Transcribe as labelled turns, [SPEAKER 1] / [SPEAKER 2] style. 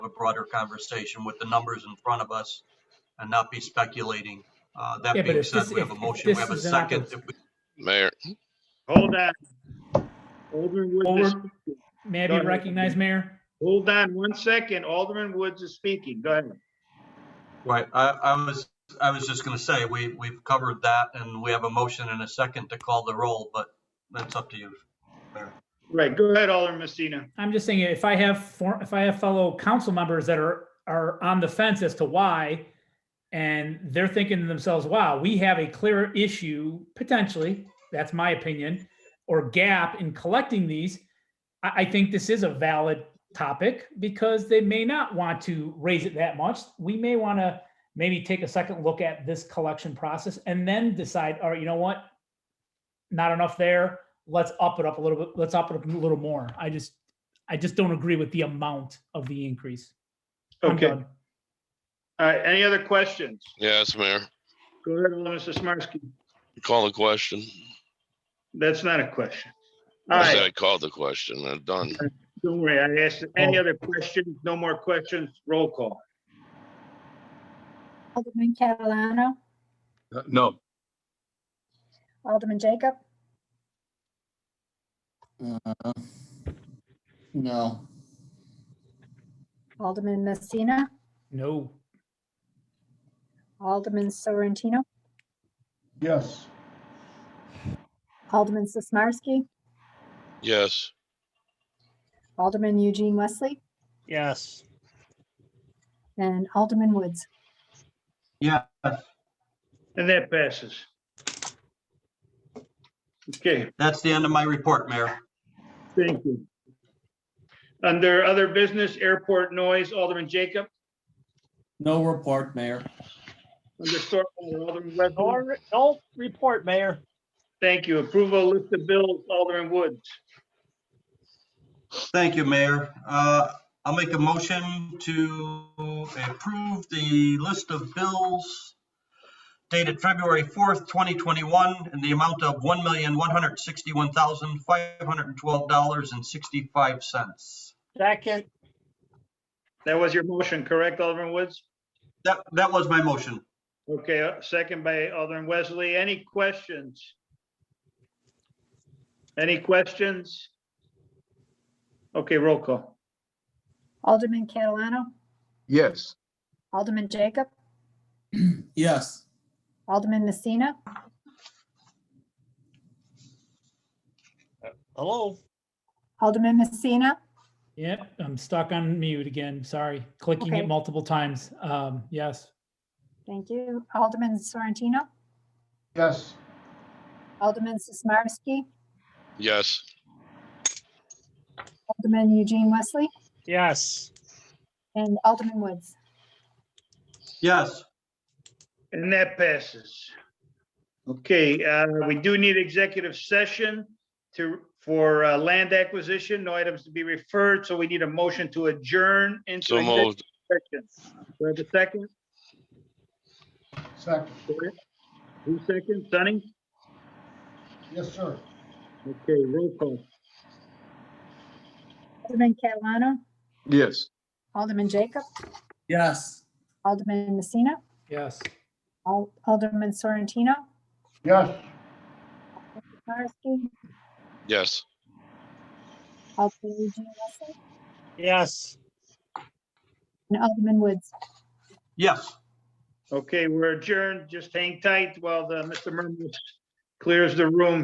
[SPEAKER 1] broader conversation with the numbers in front of us and not be speculating. Uh, That
[SPEAKER 2] Yeah, but
[SPEAKER 1] being
[SPEAKER 2] if
[SPEAKER 1] said,
[SPEAKER 2] this-
[SPEAKER 1] we have a
[SPEAKER 2] if- if
[SPEAKER 1] motion, we
[SPEAKER 2] this
[SPEAKER 1] have a
[SPEAKER 2] is an
[SPEAKER 1] second.
[SPEAKER 2] oppor-
[SPEAKER 1] If we-
[SPEAKER 3] Mayor,
[SPEAKER 4] Hold on. Alderman Woods, is-
[SPEAKER 2] Over. May I
[SPEAKER 4] Go
[SPEAKER 2] be
[SPEAKER 4] ahead.
[SPEAKER 2] recognized, Mayor?
[SPEAKER 4] hold on one second. Alderman Woods is speaking. Go ahead.
[SPEAKER 1] Right, I, I was, I was just gonna say, we, we've covered that and we have a motion and a second to call the roll, but that's up to you.
[SPEAKER 4] Right, go ahead, Alderman Messina.
[SPEAKER 2] I'm just saying, if I have, for- if I have fellow council members that are, are on the fence as to why, and they're thinking to themselves, wow, we have a clear issue, potentially, that's my opinion, or gap in collecting these, I, I think this is a valid topic, because they may not want to raise it that much. We may want to maybe take a second look at this collection process and then decide, all right, you know what? Not enough there, let's up it up a little bit, let's up it up a little more. I just, I just don't agree with the amount of the increase. I'm
[SPEAKER 4] Okay, all
[SPEAKER 2] done.
[SPEAKER 4] right, any other questions?
[SPEAKER 3] yes, Mayor,
[SPEAKER 4] Go ahead, Alderman Sismarski.
[SPEAKER 3] call the question.
[SPEAKER 4] That's not a question. All
[SPEAKER 3] I said
[SPEAKER 4] right,
[SPEAKER 3] I called the question, I'm done.
[SPEAKER 4] don't worry, I asked, any other questions? No more questions? Roll call.
[SPEAKER 5] Alderman Catalano,
[SPEAKER 6] Uh, No,
[SPEAKER 5] Alderman Jacob,
[SPEAKER 7] Uh, No,
[SPEAKER 5] Alderman Messina,
[SPEAKER 2] No,
[SPEAKER 5] Alderman Sorrentino,
[SPEAKER 6] yes,
[SPEAKER 5] Alderman Sismarski,
[SPEAKER 3] Yes,
[SPEAKER 5] Alderman Eugene Wesley,
[SPEAKER 8] yes,
[SPEAKER 5] and Alderman Woods.
[SPEAKER 1] Yeah,
[SPEAKER 4] And that passes. Okay,
[SPEAKER 1] that's the end of my report, Mayor.
[SPEAKER 4] thank you. Under other business, airport noise, Alderman Jacob.
[SPEAKER 7] no report, Mayor.
[SPEAKER 4] Under stormwater, Alderman Webber.
[SPEAKER 8] no, no report, Mayor.
[SPEAKER 4] Thank you. Approval of list of bills, Alderman Woods.
[SPEAKER 1] Thank you, Mayor. Uh, I'll make a motion to approve the list of bills dated February 4th, 2021, in the amount of $1,161,512.65.
[SPEAKER 8] Second,
[SPEAKER 4] That was your motion, correct, Alderman Woods?
[SPEAKER 1] That, that was my motion.
[SPEAKER 4] Okay, uh, second by Alderman Wesley. Any questions? Any questions? Okay, roll call.
[SPEAKER 5] Alderman Catalano,
[SPEAKER 6] yes.
[SPEAKER 5] Alderman Jacob,
[SPEAKER 7] Yes,
[SPEAKER 5] Alderman Messina,
[SPEAKER 8] Uh, hello,
[SPEAKER 5] Alderman Messina,
[SPEAKER 2] yep, I'm stuck on mute again, sorry, clicking it
[SPEAKER 5] Okay.
[SPEAKER 2] multiple times, um, yes.
[SPEAKER 5] thank you, Alderman Sorrentino,
[SPEAKER 6] Yes.
[SPEAKER 5] Alderman Sismarski,
[SPEAKER 3] yes,
[SPEAKER 5] Alderman Eugene Wesley,
[SPEAKER 8] yes,
[SPEAKER 5] and Alderman Woods.
[SPEAKER 1] Yes,
[SPEAKER 4] And that passes. Okay, uh, we do need executive session to, for uh, land acquisition, no items to be referred, so we need a motion to adjourn into
[SPEAKER 3] so
[SPEAKER 4] executive
[SPEAKER 3] moved,
[SPEAKER 4] session. Do I have a second?
[SPEAKER 6] Second,
[SPEAKER 4] Who second? Sonny?
[SPEAKER 6] yes, sir.
[SPEAKER 4] Okay, roll call.
[SPEAKER 5] Alderman Catalano,
[SPEAKER 6] Yes.
[SPEAKER 5] Alderman Jacob,
[SPEAKER 7] yes.
[SPEAKER 5] Alderman Messina,
[SPEAKER 2] Yes.
[SPEAKER 5] Al- Alderman Sorrentino,
[SPEAKER 6] Yes.
[SPEAKER 5] Sismarski,
[SPEAKER 3] yes.
[SPEAKER 5] Alderman Eugene Wesley,
[SPEAKER 8] yes.
[SPEAKER 5] and Alderman Woods.
[SPEAKER 1] yes.
[SPEAKER 4] Okay, we're adjourned. Just hang tight while the, Mr. Murmas clears the room.